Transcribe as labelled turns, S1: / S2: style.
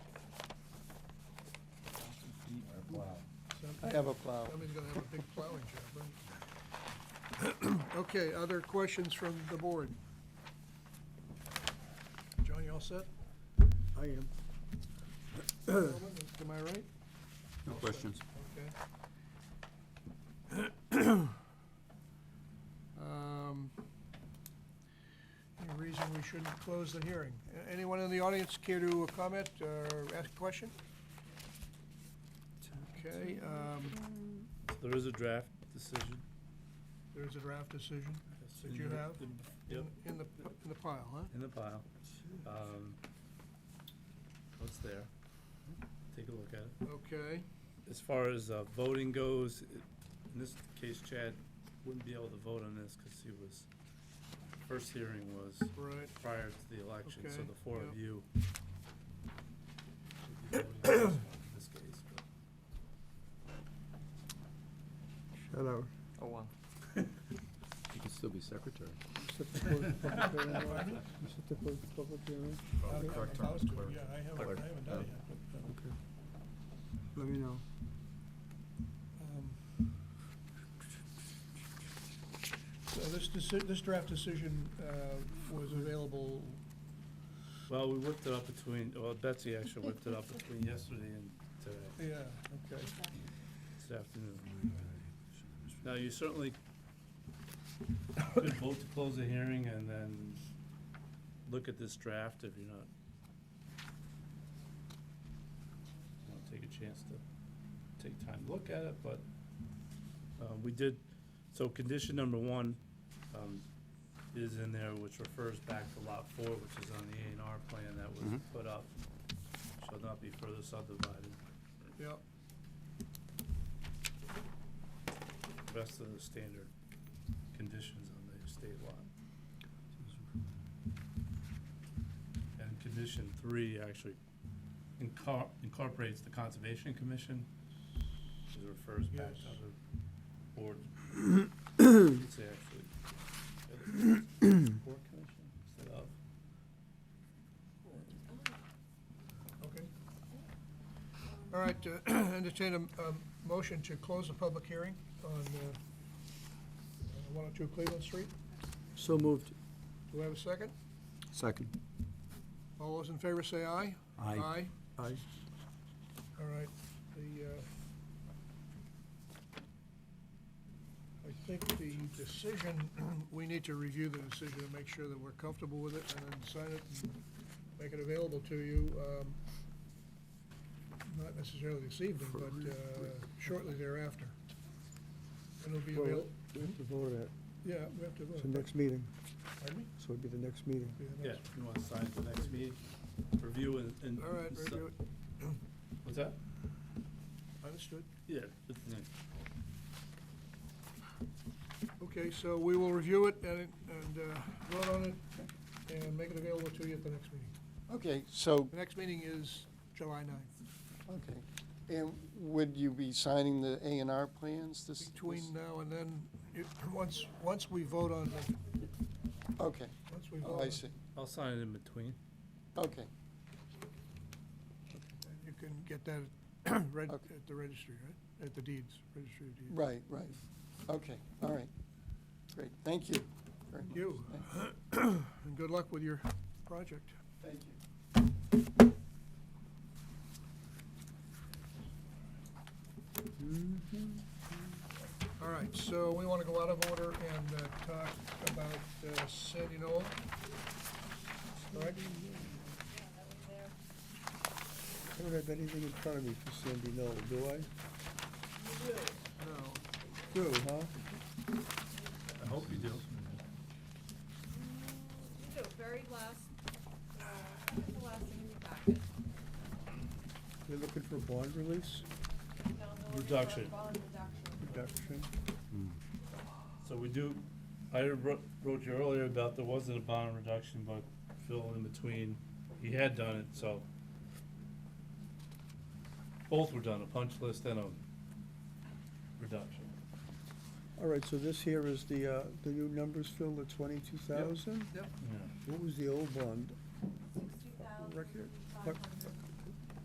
S1: to have a uh, plow.
S2: Somebody's gonna have a big plowing job, right? Okay, other questions from the board? John, you all set?
S3: I am.
S2: Gentlemen, Am I right?
S4: No questions.
S2: Okay. Um, Any reason we shouldn't close the hearing? A- Anyone in the audience care to comment or ask a question? Okay, um,
S5: There is a draft decision.
S2: there's a draft decision that you have Mm-hmm. in-
S5: Yep,
S2: in the, in the pile, huh?
S5: in the pile. Um, What's there? Take a look at it.
S2: Okay,
S5: As far as uh, voting goes, i- in this case Chad wouldn't be able to vote on this because he was, first hearing was
S2: right.
S5: prior to the election, so
S2: Okay,
S5: the four
S2: yep.
S5: of you. would be voting on this case, but-
S3: Shut out.
S1: Oh, wow.
S4: You can still be secretary.
S3: Set the close public hearing. Set the close public hearing.
S2: I'm
S4: Uh, Clerk
S2: about
S4: Thomas,
S2: to,
S4: clerk.
S2: Yeah, I haven't,
S4: Clerk.
S2: I haven't done it yet.
S3: Okay. Let me know.
S2: Um, So this deci- this draft decision uh, was available,
S5: Well, we whipped it up between, well, Betsy actually whipped it up between yesterday and today,
S2: yeah, okay.
S5: this afternoon. Now, you certainly could vote to close the hearing and then look at this draft if you're not. you know, Take a chance to take time to look at it, but, uh, we did, so condition number one, um, is in there, which refers back to lot four, which is on the A and R plan that was
S4: Mhm.
S5: put up. Shall not be further subdivided.
S2: Yep,
S5: rest of the standard conditions on the estate lot. And condition three actually incar- incorporates the Conservation Commission, which refers back to
S2: Yes.
S5: the board. It's actually. Board Commission instead of.
S2: okay. All right, uh, entertain a a motion to close the public hearing on uh, uh, 102 Cleveland Street.
S3: So moved.
S2: Do we have a second?
S4: Second.
S2: All those in favor say aye.
S4: Aye.
S2: Aye.
S3: Aye.
S2: All right, the, uh, I think the decision, we need to review the decision and make sure that we're comfortable with it and then sign it and make it available to you. um, Not necessarily this evening, but uh, shortly thereafter. It'll be
S3: Well,
S2: available,
S3: We have to vote on it.
S2: yeah, we have to
S3: It's the
S2: vote.
S3: next meeting,
S2: Pardon me?
S3: so it'd be the next meeting.
S5: Yeah,
S2: that's-
S5: you want to sign it the next meeting, review and. and-
S2: All right,
S5: and
S2: review
S5: sub- What's that?
S2: it, understood.
S5: Yeah. it's the next.
S2: Okay, so we will review it and, and uh, vote on it and make it available to you at the next meeting.
S1: Okay, so,
S2: The next meeting is July 9th,
S1: okay. And would you be signing the A and R plans this?
S2: between now and then, it- once, once we vote on, the-
S1: this- Okay,
S2: once we vote.
S1: oh,
S2: on
S1: I
S2: it,
S1: see.
S5: I'll sign it in between.
S1: Okay,
S2: You can get that reg-
S1: Okay.
S2: at the registry, right? At the deeds, registry of deeds.
S1: right, right. Okay, all right. Great, thank you. very much.
S2: You, and good luck with your project.
S1: Thank you.
S2: All right, so we want to go out of order and uh, talk about uh, Sandy Knoll. Correct?
S3: I don't have anything in front of me for Sandy Knoll, do I?
S2: No.
S3: Do, huh?
S5: I hope you do.
S6: So very last, uh, the last thing in the packet.
S3: You're looking for bond release,
S6: Now, no, it's a
S5: Reduction.
S6: Bond reduction.
S3: reduction?
S5: So we do, I wrote, wrote you earlier about there wasn't a bond reduction, but Phil in between, he had done it, so. Both were done, a punch list and a reduction.
S3: All right, so this here is the, uh, the new numbers, Phil, the twenty-two thousand?
S2: Yep.
S5: Yeah.
S3: What was the old bond?
S6: Sixty thousand,
S3: Record-
S6: five
S3: what-
S6: hundred.